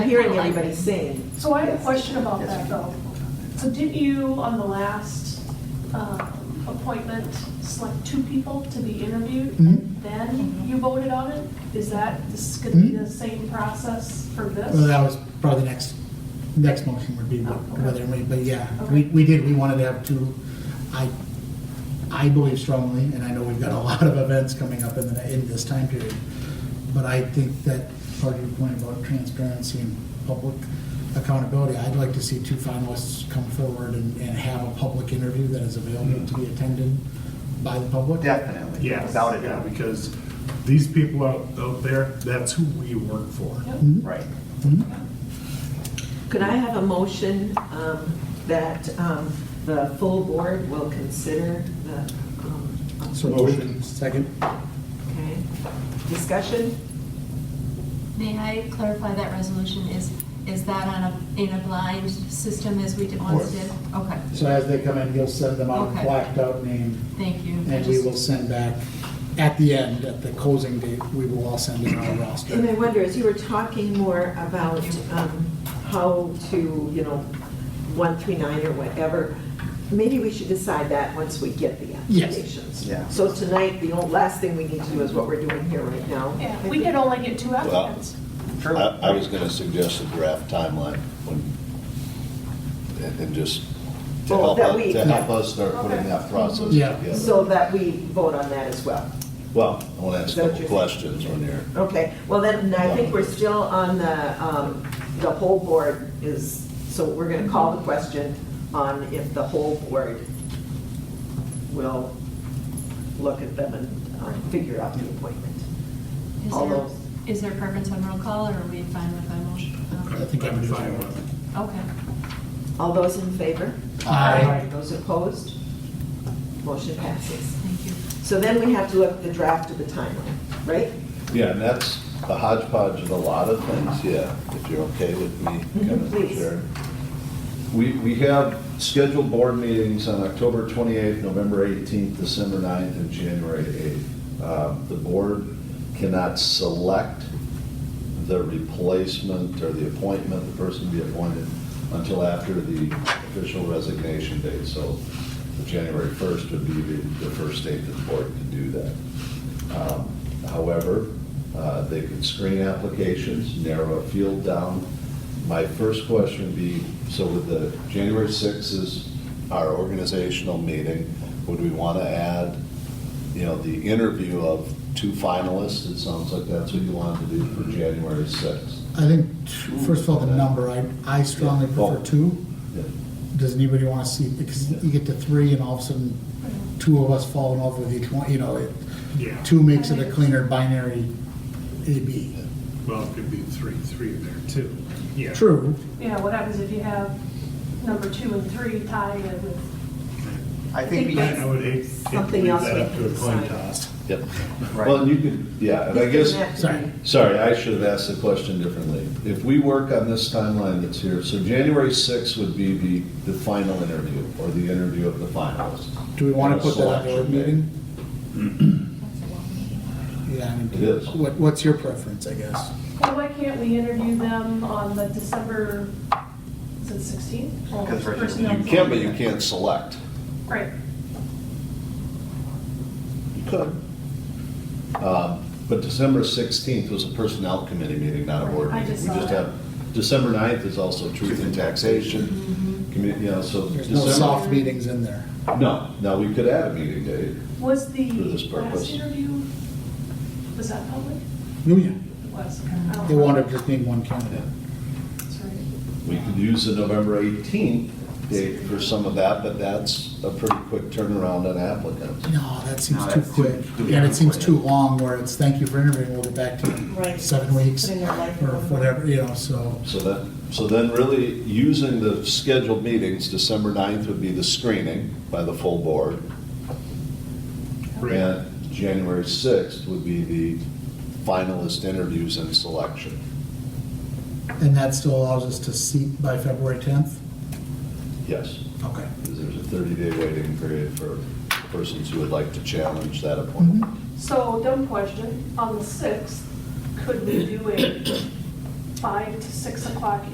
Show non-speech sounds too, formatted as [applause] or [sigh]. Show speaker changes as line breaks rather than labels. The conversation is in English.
hearing everybody sing.
So I have a question about that though. So did you, on the last um, appointment, select two people to be interviewed?
Mhm.
Then you voted on it? Is that, this could be the same process for this?
Mm-hmm. Well, that was probably the next, next motion would be wh- whether, we- but yeah, we,
Okay.
we did, we wanted to have two. I, I believe strongly, and I know we've got a [laughs] lot of events coming up in the, in this time period, but I think that part of your point about transparency and public accountability, I'd like to see two finalists come forward and, and have a public interview that is available to be attended by the public.
Definitely.
Yes,
Without a
yeah,
doubt.
because these people out, out there, that's who we work for.
Yep.
Mm-hmm.
Right.
Could I have a motion um, that um, the full board will consider the, um,
So motion, second.
okay, discussion?
May I clarify that resolution is, is that on a, in a blind system as we did
course.
once did? Okay,
So as they come in, you'll send them out
Okay.
blacked out name.
thank you.
And we will send back, at the end, at the closing date, we will all send in our
And I
roster.
wonder, as you were talking more about um, how to, you know, 139 or whatever, maybe we should decide that once we get the
Yes.
applications.
Yeah.
So tonight, the only- last thing we need to do is what we're doing here right now.
Yeah, we could only get two applicants.
True.
I, I was gonna suggest a draft timeline when, and- and just to
Oh,
help,
that
us-
we-
to help us start putting that process
Yeah.
together.
So that we vote on that as well.
Well, I wanna ask a
Is that
couple
your-
questions on here.
Okay, well then, I think we're still on the, um, the whole board is, so we're gonna call the question on if the whole board will look at them and um, figure out the appointment.
Is
all
there,
those-
is there preference on roll call, or are we fine with a motion?
I think I'm
Fine
doing
with it.
Okay.
All those in favor?
Aye.
Those opposed? Motion passes.
Thank you.
So then we have to look at the draft of the timeline, right?
Yeah, and that's a hodgepodge of a lot of things, yeah, if you're okay with me kind of
Please.
sharing. We, we have scheduled board meetings on October 28th, November 18th, December 9th, and January 8th. Um, The board cannot select the replacement or the appointment, the person to be appointed, until after the official resignation date. So January 1st would be the the first date that the board can do that. Um, However, uh, they can screen applications, narrow a field down. My first question would be, so with the, January 6th is our organizational meeting, would we want to add, you know, the interview of two finalists? It sounds like that's what you wanted to do for January 6th.
I think, t- first of all, the number, I, I strongly prefer two.
Yeah.
Does anybody want to see, because you get to three and all of a sudden, two of us falling off with each one, you know, it-
Yeah.
two makes it a cleaner binary AB.
Well, it could be three, three there too. Yeah.
True,
Yeah, what happens if you have number two and three tied with,
I think we,
I I would hate. hate to
Something
leave
else
that
we
up to
can
a coin
decide.
toss.
Yep.
Right.
Well, and you could, yeah, and I guess.
This doesn't have to be-
sorry.
Sorry, I should have asked the question differently. If we work on this timeline that's here, so January 6th would be the, the final interview, or the interview of the finalists.
Do we want to
And a
put that on the
selection
meeting?
day.
Yeah, I
It
mean,
is.
what, what's your preference, I guess?
well, why can't we interview them on the December, is it 16?
Because we're-
You can, but you can't select.
Right.
You could. Um, But December 16th was a personnel committee meeting, not a board
I
meeting.
just
We
saw that.
have December 9th is also truth in taxation, commu- you know, so.
There's no
December-
soft meetings in there.
No, no, we could add a meeting date.
Was the
For this
last
purpose.
interview, was that public?
Oh, yeah.
It was. okay. I don't
They
know.
wanted just need one candidate.
Sorry.
We could use the November 18th date for some of that, but that's a pretty quick turnaround on applicants.
No, that
No,
seems too
that's too-
quick.
too
And it seems
quick.
too long where it's, thank you for interviewing, we'll get back to you in
Right.
seven weeks
Putting their life
or
in.
whatever, you know, so.
So that, so then really, using the scheduled meetings, December 9th would be the screening by the full board.
Right.
And January 6th would be the finalist interviews and selection.
And that still allows us to seat by February 10th?
Yes,
Okay.
because there's a 30-day waiting period for persons who would like to challenge that
Mm-hmm.
appointment.
So, dumb question, on the 6th, could we do a five to six o'clock